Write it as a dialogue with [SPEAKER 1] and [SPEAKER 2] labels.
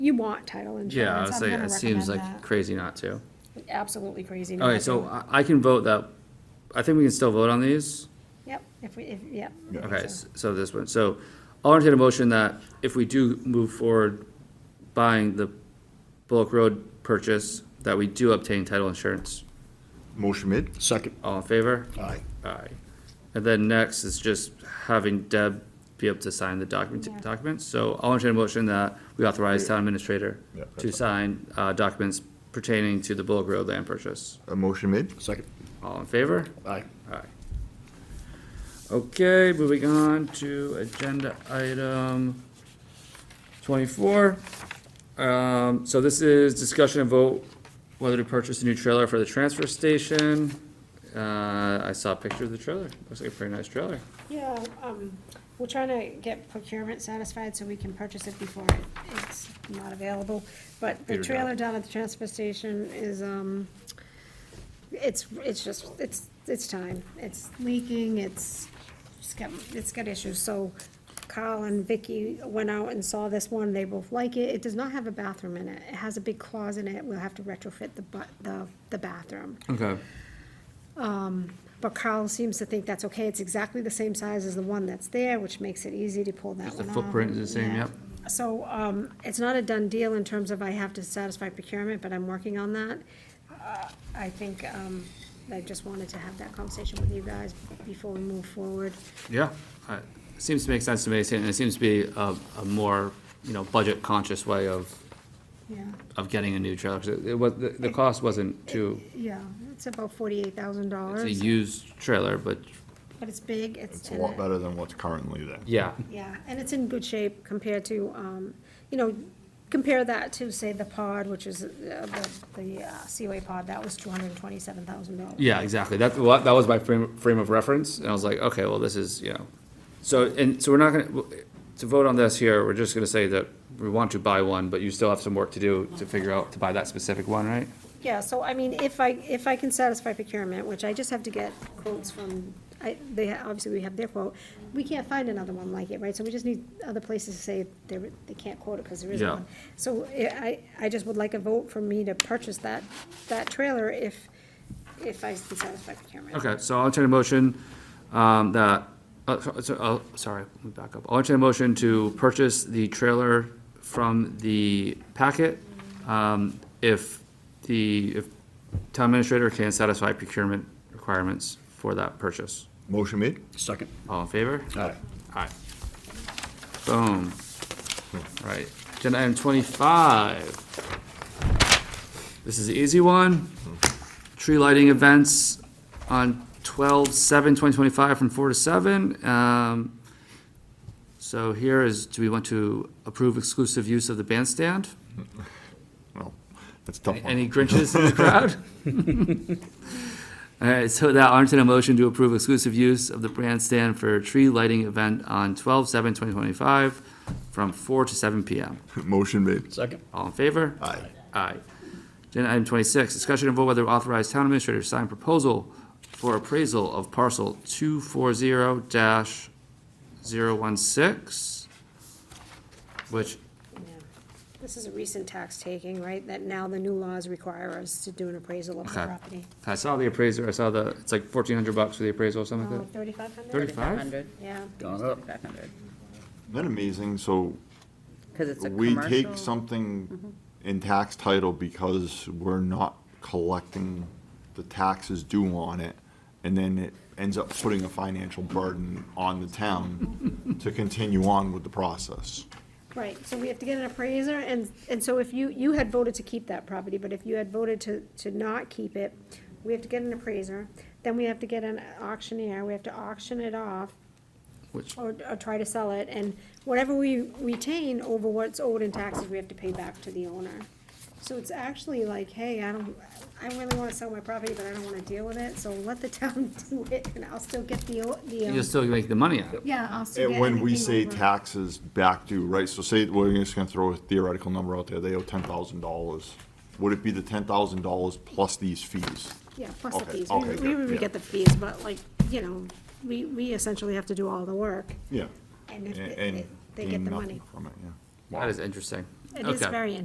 [SPEAKER 1] You want title
[SPEAKER 2] Yeah,
[SPEAKER 1] insurance.
[SPEAKER 2] I'd
[SPEAKER 1] I'm
[SPEAKER 2] say
[SPEAKER 1] gonna
[SPEAKER 2] it seems
[SPEAKER 1] recommend
[SPEAKER 2] like crazy not to.
[SPEAKER 1] that. Absolutely crazy. not
[SPEAKER 2] Okay, so
[SPEAKER 1] to.
[SPEAKER 2] I, I can vote that, I think we can still vote on these.
[SPEAKER 1] Yep, if we, if, yep.
[SPEAKER 2] Okay, s- so this one, so I'll entertain a motion that if we do move forward buying the Bullock Road purchase, that we do obtain title insurance.
[SPEAKER 3] Motion made.
[SPEAKER 4] Second.
[SPEAKER 2] All in favor?
[SPEAKER 4] Aye.
[SPEAKER 2] Aye. And then next is just having Deb be able to sign the document,
[SPEAKER 1] Yeah.
[SPEAKER 2] documents. So I'll entertain a motion that we authorize town administrator
[SPEAKER 3] Yeah,
[SPEAKER 2] to
[SPEAKER 3] that's
[SPEAKER 2] sign, uh, documents pertaining to the Bullock Road land purchase.
[SPEAKER 3] A motion made.
[SPEAKER 4] Second.
[SPEAKER 2] All in favor?
[SPEAKER 4] Aye.
[SPEAKER 2] Aye. Okay, moving on to agenda item twenty-four. Um, so this is discussion and vote whether to purchase a new trailer for the transfer station. Uh, I saw a picture of the trailer. Looks like a pretty nice trailer.
[SPEAKER 1] Yeah, um, we're trying to get procurement satisfied so we can purchase it before it- it's not available. But the
[SPEAKER 2] Peter, no.
[SPEAKER 1] trailer down at the transfer station is, um, it's, it's just, it's, it's time. It's leaking, it's, it's got, it's got issues. So Carl and Vicky went out and saw this one, they both like it. It does not have a bathroom in it. It has a big closet in it, we'll have to retrofit the bu- the, the bathroom.
[SPEAKER 2] Okay.
[SPEAKER 1] But Carl seems to think that's okay, it's exactly the same size as the one that's there, which makes it easy to pull that one
[SPEAKER 2] Just the
[SPEAKER 1] off.
[SPEAKER 2] footprint is the same,
[SPEAKER 1] Yeah.
[SPEAKER 2] yep.
[SPEAKER 1] So, um, it's not a done deal in terms of I have to satisfy procurement, but I'm working on that. Uh, I think, um, I just wanted to have that conversation with you guys before we move forward.
[SPEAKER 2] Yeah, I- seems to make sense to me, and it seems to be a, a more, you know, budget-conscious way of,
[SPEAKER 1] Yeah,
[SPEAKER 2] of getting a new trailer. 'Cause It it was, the, the cost wasn't too,
[SPEAKER 1] yeah, it's about forty-eight thousand
[SPEAKER 2] it's a
[SPEAKER 1] dollars,
[SPEAKER 2] used trailer, but,
[SPEAKER 1] but it's big, it's.
[SPEAKER 3] It's a
[SPEAKER 1] and
[SPEAKER 3] lot
[SPEAKER 1] it-
[SPEAKER 3] better than what's currently there.
[SPEAKER 2] yeah.
[SPEAKER 1] Yeah, and it's in good shape compared to, um, you know, compare that to, say, the pod, which is uh, the, the uh, Seaway pod, that was two hundred and twenty-seven thousand dollars.
[SPEAKER 2] Yeah, exactly. That, well, that was my frame, frame of reference, and I was like, okay, well, this is, you know. So, and, so we're not gonna, to vote on this here, we're just gonna say that we want to buy one, but you still have some work to do to figure out to buy that specific one, right?
[SPEAKER 1] Yeah, so I mean, if I, if I can satisfy procurement, which I just have to get quotes from, I, they, obviously we have their quote, we can't find another one like it, right? So we just need other places to say they, they can't quote it because there isn't
[SPEAKER 2] Yeah.
[SPEAKER 1] one. So eh, I, I I just would like a vote for me to purchase that, that trailer if, if I can satisfy procurement.
[SPEAKER 2] Okay, so I'll entertain a motion, um, that, uh, so- so, oh, sorry, let me back up. I'll entertain a motion to purchase the trailer from the packet, um, if the, if town administrator can satisfy procurement requirements for that purchase.
[SPEAKER 3] Motion made.
[SPEAKER 4] Second.
[SPEAKER 2] All in favor?
[SPEAKER 4] Aye.
[SPEAKER 2] Aye. Boom. Right, agenda item twenty-five. This is the easy one. Tree lighting events on 12-7-2025 from four to seven. Um, So here is, do we want to approve exclusive use of the bandstand?
[SPEAKER 3] Well, that's a tough
[SPEAKER 2] Any
[SPEAKER 3] one.
[SPEAKER 2] Grinches in the crowd? All right, so that, I'll entertain a motion to approve exclusive use of the bandstand for a tree lighting event on 12-7-2025 from four to seven P M.
[SPEAKER 3] Motion made.
[SPEAKER 4] Second.
[SPEAKER 2] All in favor?
[SPEAKER 3] Aye.
[SPEAKER 2] Aye. Agenda item twenty-six, discussion and vote whether authorize town administrator to sign proposal for appraisal of parcel two four zero dash zero one six, which,
[SPEAKER 1] Yeah. This is a recent tax taking, right, that now the new laws require us to do an appraisal of the
[SPEAKER 2] Okay.
[SPEAKER 1] property.
[SPEAKER 2] I saw the appraiser, I saw the, it's like fourteen hundred bucks for the appraisal or something like that.
[SPEAKER 1] Oh, Thirty-five hundred?
[SPEAKER 2] Thirty-five?
[SPEAKER 1] Yeah,
[SPEAKER 4] Gone up.
[SPEAKER 3] Isn't that amazing? So
[SPEAKER 5] Because it's a
[SPEAKER 3] we
[SPEAKER 5] commercial. Mm-hmm.
[SPEAKER 3] take something in tax title because we're not collecting the taxes due on it, and then it ends up putting a financial burden on the town to continue on with the process.
[SPEAKER 1] right, so we have to get an appraiser, and, and so if you, you had voted to keep that property, but if you had voted to, to not keep it, we have to get an appraiser, then we have to get an auctioneer, we have to auction it off,
[SPEAKER 2] Which,
[SPEAKER 1] or, or try to sell it, and whatever we retain over what's owed in taxes, we have to pay back to the owner. So it's actually like, hey, I don't, I really wanna sell my property, but I don't wanna deal with it, so let the town do it, and I'll still get the, o- the,
[SPEAKER 2] you'll
[SPEAKER 1] um,
[SPEAKER 2] still make the money out of it.
[SPEAKER 1] yeah, I'll still
[SPEAKER 3] And
[SPEAKER 1] get.
[SPEAKER 3] when we
[SPEAKER 1] everything
[SPEAKER 3] say
[SPEAKER 1] over.
[SPEAKER 3] taxes back due, right, so say, we're just gonna throw a theoretical number out there, they owe ten thousand dollars. Would it be the ten thousand dollars plus these fees?
[SPEAKER 1] Yeah, plus the
[SPEAKER 3] Okay,
[SPEAKER 1] fees,
[SPEAKER 3] okay,
[SPEAKER 1] we, we
[SPEAKER 3] yeah.
[SPEAKER 1] would get the fees, but like, you know, we, we essentially have to do all the work,
[SPEAKER 3] Yeah.
[SPEAKER 1] and if,
[SPEAKER 3] A-
[SPEAKER 1] they-
[SPEAKER 3] And
[SPEAKER 1] they get
[SPEAKER 3] gain
[SPEAKER 1] the
[SPEAKER 3] nothing
[SPEAKER 1] money.
[SPEAKER 3] From it, yeah.
[SPEAKER 2] That is interesting.
[SPEAKER 1] It is
[SPEAKER 2] Okay.
[SPEAKER 1] very